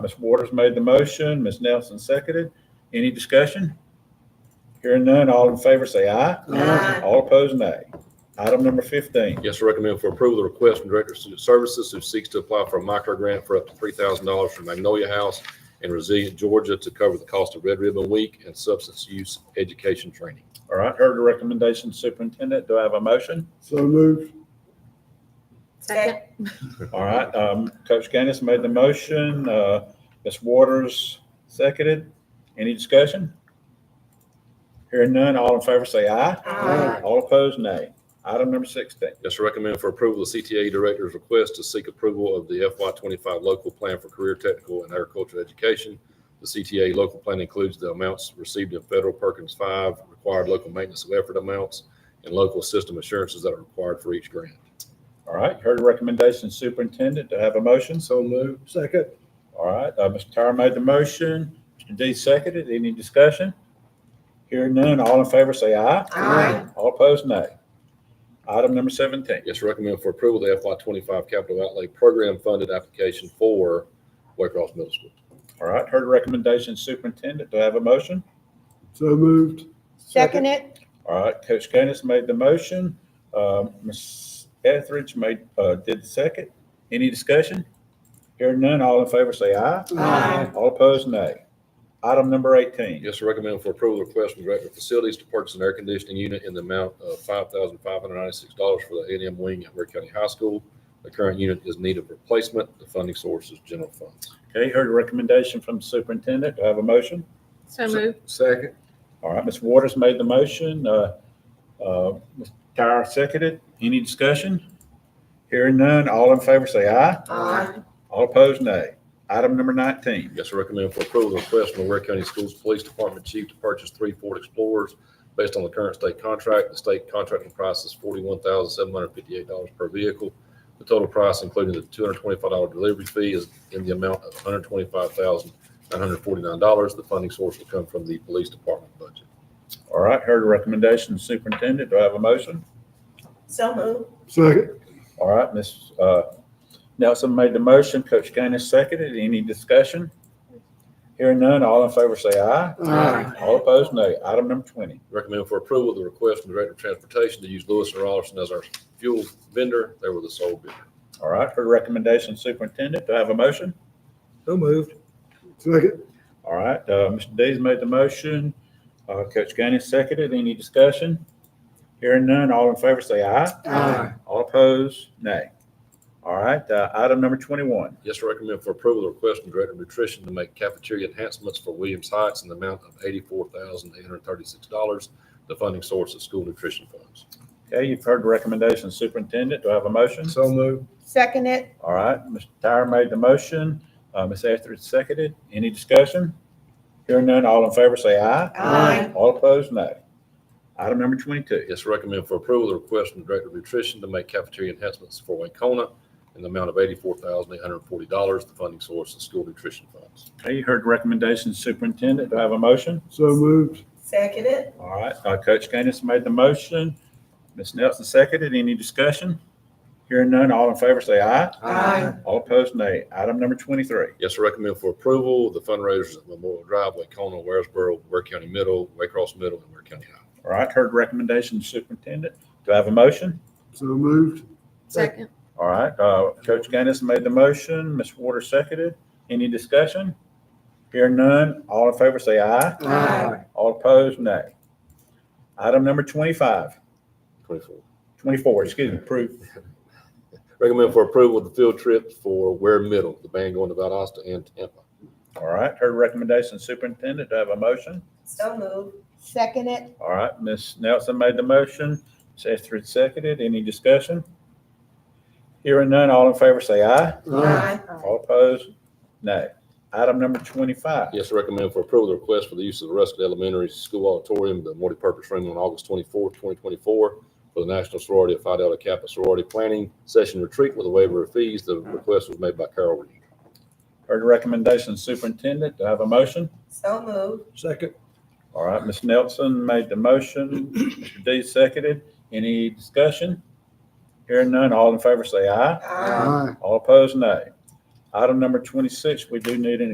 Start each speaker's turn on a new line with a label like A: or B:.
A: Ms. Waters made the motion, Ms. Nelson seconded. Any discussion? Hearing none, all in favor say aye.
B: Aye.
A: All opposed, nay. Item number fifteen,
C: Yes, sir, recommend for approval, the request from Director of Student Services who seeks to apply for a micro grant for up to three thousand dollars from Magnolia House in Resilient, Georgia to cover the cost of Red Ribbon Week and substance use education training.
A: all right, heard the recommendation, Superintendent, do I have a motion?
D: So moved.
B: Second.
A: All right, um, Coach Gaines made the motion, uh, Ms. Waters seconded. Any discussion? Hearing none, all in favor say aye.
B: Aye.
A: All opposed, nay. Item number sixteen,
C: Yes, sir, recommend for approval, the CTA Director's request to seek approval of the FY twenty-five local plan for career technical and agricultural education. The CTA local plan includes the amounts received in federal Perkins Five, required local maintenance of effort amounts, and local system assurances that are required for each grant.
A: all right, heard the recommendation, Superintendent, do I have a motion?
D: So moved. Second.
A: All right, uh, Mr. Tyra made the motion, Mr. D seconded, any discussion? Hearing none, all in favor say aye.
B: Aye.
A: All opposed, nay. Item number seventeen,
C: Yes, recommend for approval, the FY twenty-five capital outlay program funded application for Waycross Middle School.
A: all right, heard the recommendation, Superintendent, do I have a motion?
D: So moved.
E: Second it?
A: All right, Coach Gaines made the motion, um, Ms. Etheridge made, uh, did the second, any discussion? Hearing none, all in favor say aye.
B: Aye.
A: All opposed, nay. Item number eighteen,
C: Yes, sir, recommend for approval, request from Director of Facilities to purchase an air conditioning unit in the amount of five thousand five hundred ninety-six dollars for the A and M wing at Ware County High School. The current unit is in need of replacement. The funding source is general funds.
A: okay, heard the recommendation from the Superintendent, do I have a motion?
E: So moved.
D: Second.
A: All right, Ms. Waters made the motion, uh, uh, Ms. Tyra seconded. Any discussion? Hearing none, all in favor say aye.
B: Aye.
A: All opposed, nay. Item number nineteen.
C: Yes, sir, recommend for approval, request from the Ware County Schools Police Department Chief to purchase three Ford Explorers based on the current state contract. The state contracting price is forty-one thousand seven hundred fifty-eight dollars per vehicle. The total price, including the two hundred twenty-five dollar delivery fee, is in the amount of one hundred twenty-five thousand nine hundred forty-nine dollars. The funding source will come from the police department budget.
A: All right, heard the recommendation, Superintendent, do I have a motion?
B: So moved.
D: Second.
A: All right, Ms. uh, Nelson made the motion, Coach Gaines seconded. Any discussion? Hearing none, all in favor say aye.
D: Aye.
A: All opposed, nay. Item number twenty.
C: Recommend for approval, the request from the Director of Transportation to use Lewis and Rollerson as our fuel vendor. They were the sole bidder.
A: All right, heard the recommendation, Superintendent, do I have a motion?
D: So moved. Second.
A: All right, uh, Mr. Dees made the motion, uh, Coach Gaines seconded, any discussion? Hearing none, all in favor say aye.
D: Aye.
A: All opposed, nay. All right, uh, item number twenty-one,
C: Yes, sir, recommend for approval, the request from Director of Nutrition to make cafeteria enhancements for Williams Heights in the amount of eighty-four thousand eight hundred thirty-six dollars. The funding source is school nutrition funds.
A: okay, you've heard the recommendation, Superintendent, do I have a motion?
D: So moved.
E: Second it?
A: All right, Mr. Tyra made the motion, uh, Ms. Etheridge seconded, any discussion? Hearing none, all in favor say aye.
B: Aye.
A: All opposed, nay. Item number twenty-two,
C: Yes, sir, recommend for approval, the request from Director of Nutrition to make cafeteria enhancements for Wakeona in the amount of eighty-four thousand eight hundred forty dollars. The funding source is school nutrition funds.
A: okay, you heard the recommendation, Superintendent, do I have a motion?
D: So moved.
B: Second it.
A: All right, uh, Coach Gaines made the motion. Ms. Nelson seconded. Any discussion? Hearing none, all in favor say aye.
B: Aye.
A: All opposed, nay. Item number twenty-three.
C: Yes, sir, recommend for approval, the fundraisers at Memorial Drive, Wakeona, Waresboro, Ware County Middle, Waycross Middle, and Ware County High.
A: All right, heard recommendation, Superintendent. Do I have a motion?
D: So moved.
E: Second.
A: All right, uh, Coach Gaines made the motion. Ms. Waters seconded. Any discussion? Hearing none, all in favor say aye.
B: Aye.
A: All opposed, nay. Item number 25.
C: 24.
A: 24. excuse me, approved.
C: Recommend for approval the field trip for Ware Middle, the band going to Valdosta and Tampa.
A: All right, heard recommendation, Superintendent. Do I have a motion?
B: So moved.
E: Second it?
A: All right, Ms. Nelson made the motion, Ms. Etheridge seconded. Any discussion? Hearing none, all in favor say aye.
B: Aye.
A: All opposed, nay. Item number twenty-five.
C: Yes, recommend for approval the request for the use of the Ruskin Elementary School Auditorium, the multipurpose room on August twenty-fourth, twenty twenty-four for the National Sorority of Phi Delta Kappa Sorority Planning Session Retreat with a waiver of fees. The request was made by Carol Reed.
A: Heard the recommendation, Superintendent, do I have a motion?
B: So moved.
D: Second.
A: All right, Ms. Nelson made the motion, Mr. D seconded. Any discussion? Hearing none, all in favor say aye.
B: Aye.
D: Aye.
A: All opposed, nay. Item number twenty-six, we do need an